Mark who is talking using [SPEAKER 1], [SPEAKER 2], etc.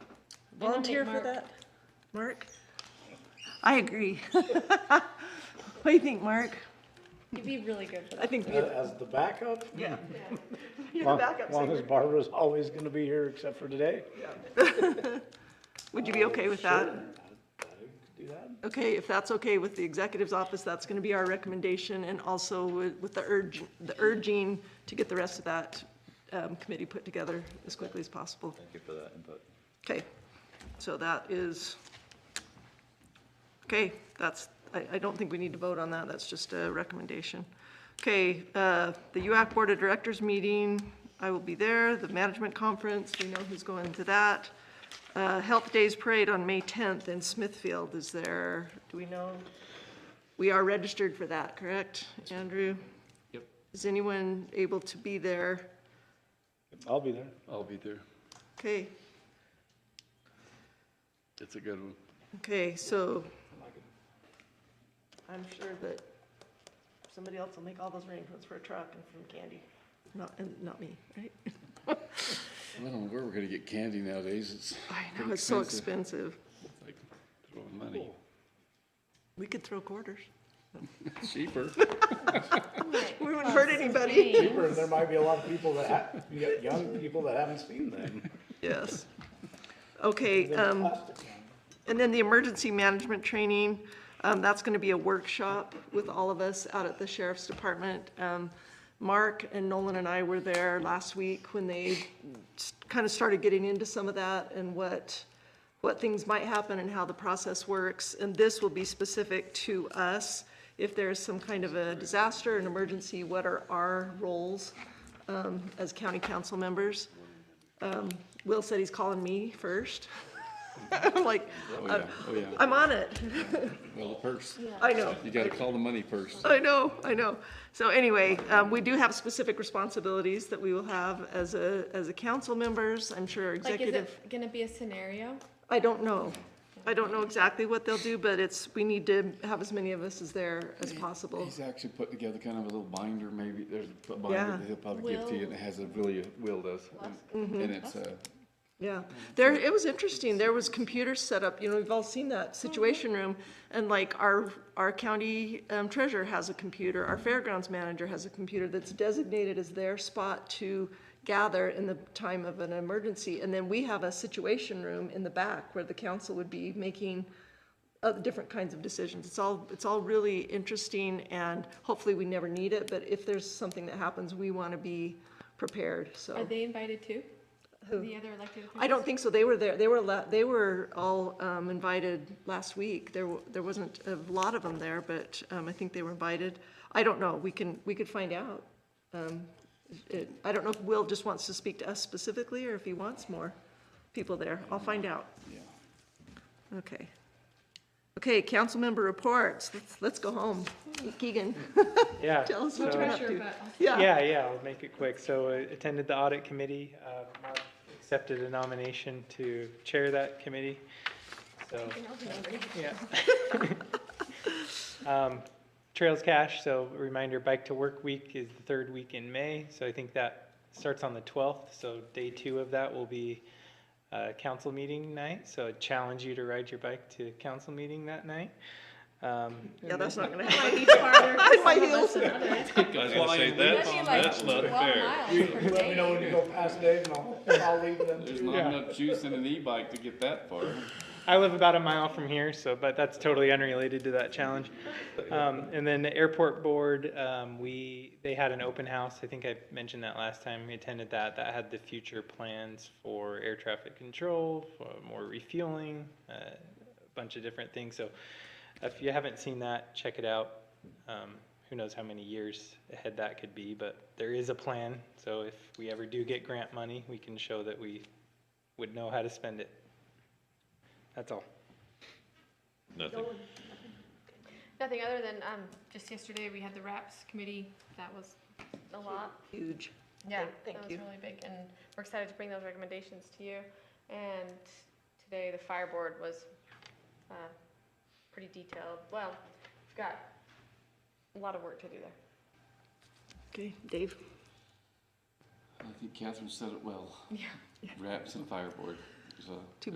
[SPEAKER 1] volunteer for
[SPEAKER 2] Mark-
[SPEAKER 1] that? Mark? I agree. What do you think, Mark?
[SPEAKER 2] You'd be really good for
[SPEAKER 1] I
[SPEAKER 2] that.
[SPEAKER 1] think
[SPEAKER 3] Uh,
[SPEAKER 1] you're
[SPEAKER 3] As the backup?
[SPEAKER 1] yeah. You're the
[SPEAKER 3] Long-
[SPEAKER 1] backup
[SPEAKER 3] Long
[SPEAKER 1] singer.
[SPEAKER 3] as Barbara's always gonna be here except for today.
[SPEAKER 1] Would you be okay with that?
[SPEAKER 3] I could Do that?
[SPEAKER 1] Okay, if that's okay with the executive's office, that's gonna be our recommendation, and also with with the urge, the urging to get the rest of that um, committee put together as quickly as possible.
[SPEAKER 4] Thank you for that input.
[SPEAKER 1] Okay, so that is, okay, that's, I, I don't think we need to vote on that, that's just a recommendation. Okay, uh, the UAC Board of Directors meeting, I will be there, the management conference, we know who's going to that. Uh, Health Days Parade on May tenth in Smithfield is there, do we know? We are registered for that, correct, Andrew?
[SPEAKER 5] Yep.
[SPEAKER 1] Is anyone able to be there?
[SPEAKER 3] I'll be there.
[SPEAKER 5] I'll be there.
[SPEAKER 1] Okay,
[SPEAKER 5] It's a good one.
[SPEAKER 1] Okay, so I'm sure that somebody else will make all those arrangements for a truck and from Candy, not, and not me, right?
[SPEAKER 5] I don't know where we're gonna get candy nowadays. It's
[SPEAKER 1] I know,
[SPEAKER 5] pretty
[SPEAKER 1] it's so expensive.
[SPEAKER 5] It's like throwing money.
[SPEAKER 1] We could throw quarters.
[SPEAKER 5] Cheaper.
[SPEAKER 1] We wouldn't hurt anybody.
[SPEAKER 3] Cheaper, and there might be a lot of people that, ha- you got young people that haven't seen them.
[SPEAKER 1] Yes. Okay, um, And then the emergency management training, um, that's gonna be a workshop with all of us out at the sheriff's department. Um, Mark and Nolan and I were there last week when they kind of started getting into some of that and what, what things might happen and how the process works. And this will be specific to us. If there's some kind of a disaster, an emergency, what are our roles, um, as county council members? Um, Will said he's calling me first. I'm like,
[SPEAKER 5] Oh, yeah, oh, yeah.
[SPEAKER 1] I'm on it.
[SPEAKER 5] Well, the purse.
[SPEAKER 1] I know.
[SPEAKER 5] You gotta call the money first.
[SPEAKER 1] I know, I know. So anyway, um, we do have specific responsibilities that we will have as a, as a council members, I'm sure our
[SPEAKER 2] Like, is
[SPEAKER 1] executive.
[SPEAKER 2] it gonna be a scenario?
[SPEAKER 1] I don't know. I don't know exactly what they'll do, but it's, we need to have as many of us as there as possible.
[SPEAKER 5] He's actually put together kind of a little binder, maybe, there's a binder
[SPEAKER 1] Yeah.
[SPEAKER 5] that he'll probably give to you, and it has a really, uh, Will does.
[SPEAKER 1] Mm-hmm.
[SPEAKER 5] And it's, uh,
[SPEAKER 1] Yeah, there, it was interesting, there was computers set up, you know, we've all seen that situation room, and like our, our county um, treasurer has a computer, our fairgrounds manager has a computer that's designated as their spot to gather in the time of an emergency, and then we have a situation room in the back where the council would be making uh, different kinds of decisions. It's all, it's all really interesting, and hopefully we never need it, but if there's something that happens, we wanna be prepared, so.
[SPEAKER 2] Are they invited too? The other elected officials?
[SPEAKER 1] Oh. I don't think so. They were there, they were, la- they were all um, invited last week. There, w- there wasn't a lot of them there, but um, I think they were invited. I don't know, we can, we could find out. Um, it- I don't know if Will just wants to speak to us specifically, or if he wants more people there. I'll find out.
[SPEAKER 5] yeah.
[SPEAKER 1] Okay. Okay, council member reports. Let's, let's go home. Keegan,
[SPEAKER 6] Yeah.
[SPEAKER 1] tell us what
[SPEAKER 6] so-
[SPEAKER 1] you're up
[SPEAKER 2] Pressure,
[SPEAKER 1] to.
[SPEAKER 2] but also-
[SPEAKER 6] Yeah, yeah, I'll make it quick. So I attended the audit committee. Uh, Mark accepted a nomination to chair that committee. So, yeah. Um, Trails Cash, so a reminder, Bike to Work Week is the third week in May. So I think that starts on the 12th. So day two of that will be uh, council meeting night. So I challenge you to ride your bike to council meeting that night. Um,
[SPEAKER 1] Yeah, that's not gonna
[SPEAKER 2] Might
[SPEAKER 1] happen.
[SPEAKER 2] be farther for
[SPEAKER 1] my
[SPEAKER 2] some of us
[SPEAKER 1] heels.
[SPEAKER 2] than others.
[SPEAKER 4] I was gonna say,
[SPEAKER 2] That'd
[SPEAKER 4] that's,
[SPEAKER 2] be like
[SPEAKER 4] that's not
[SPEAKER 2] 12
[SPEAKER 4] fair.
[SPEAKER 2] miles per
[SPEAKER 3] Let me
[SPEAKER 2] day.
[SPEAKER 3] know when you go past Dave and I'll, I'll leave then
[SPEAKER 5] There's
[SPEAKER 3] too.
[SPEAKER 5] not
[SPEAKER 6] Yeah.
[SPEAKER 5] enough juice in an e-bike to get that far.
[SPEAKER 6] I live about a mile from here, so but that's totally unrelated to that challenge. Um, and then the airport board, um, we they had an open house. I think I mentioned that last time. We attended that. That had the future plans for air traffic control, for more refueling, uh, a bunch of different things. So if you haven't seen that, check it out. Um, who knows how many years ahead that could be, but there is a plan. So if we ever do get grant money, we can show that we would know how to spend it. That's all.
[SPEAKER 4] Nothing.
[SPEAKER 2] Nothing other than, um, just yesterday, we had the RAPS committee. That was a lot.
[SPEAKER 1] Huge.
[SPEAKER 2] Yeah,
[SPEAKER 1] Thank
[SPEAKER 2] that was
[SPEAKER 1] you.
[SPEAKER 2] really big, and we're excited to bring those recommendations to you. And today, the fire board was uh, pretty detailed. Well, we've got a lot of work to do there.
[SPEAKER 1] Okay, Dave?
[SPEAKER 5] I think Catherine said it well.
[SPEAKER 2] Yeah.
[SPEAKER 5] Wraps and fireboard, so.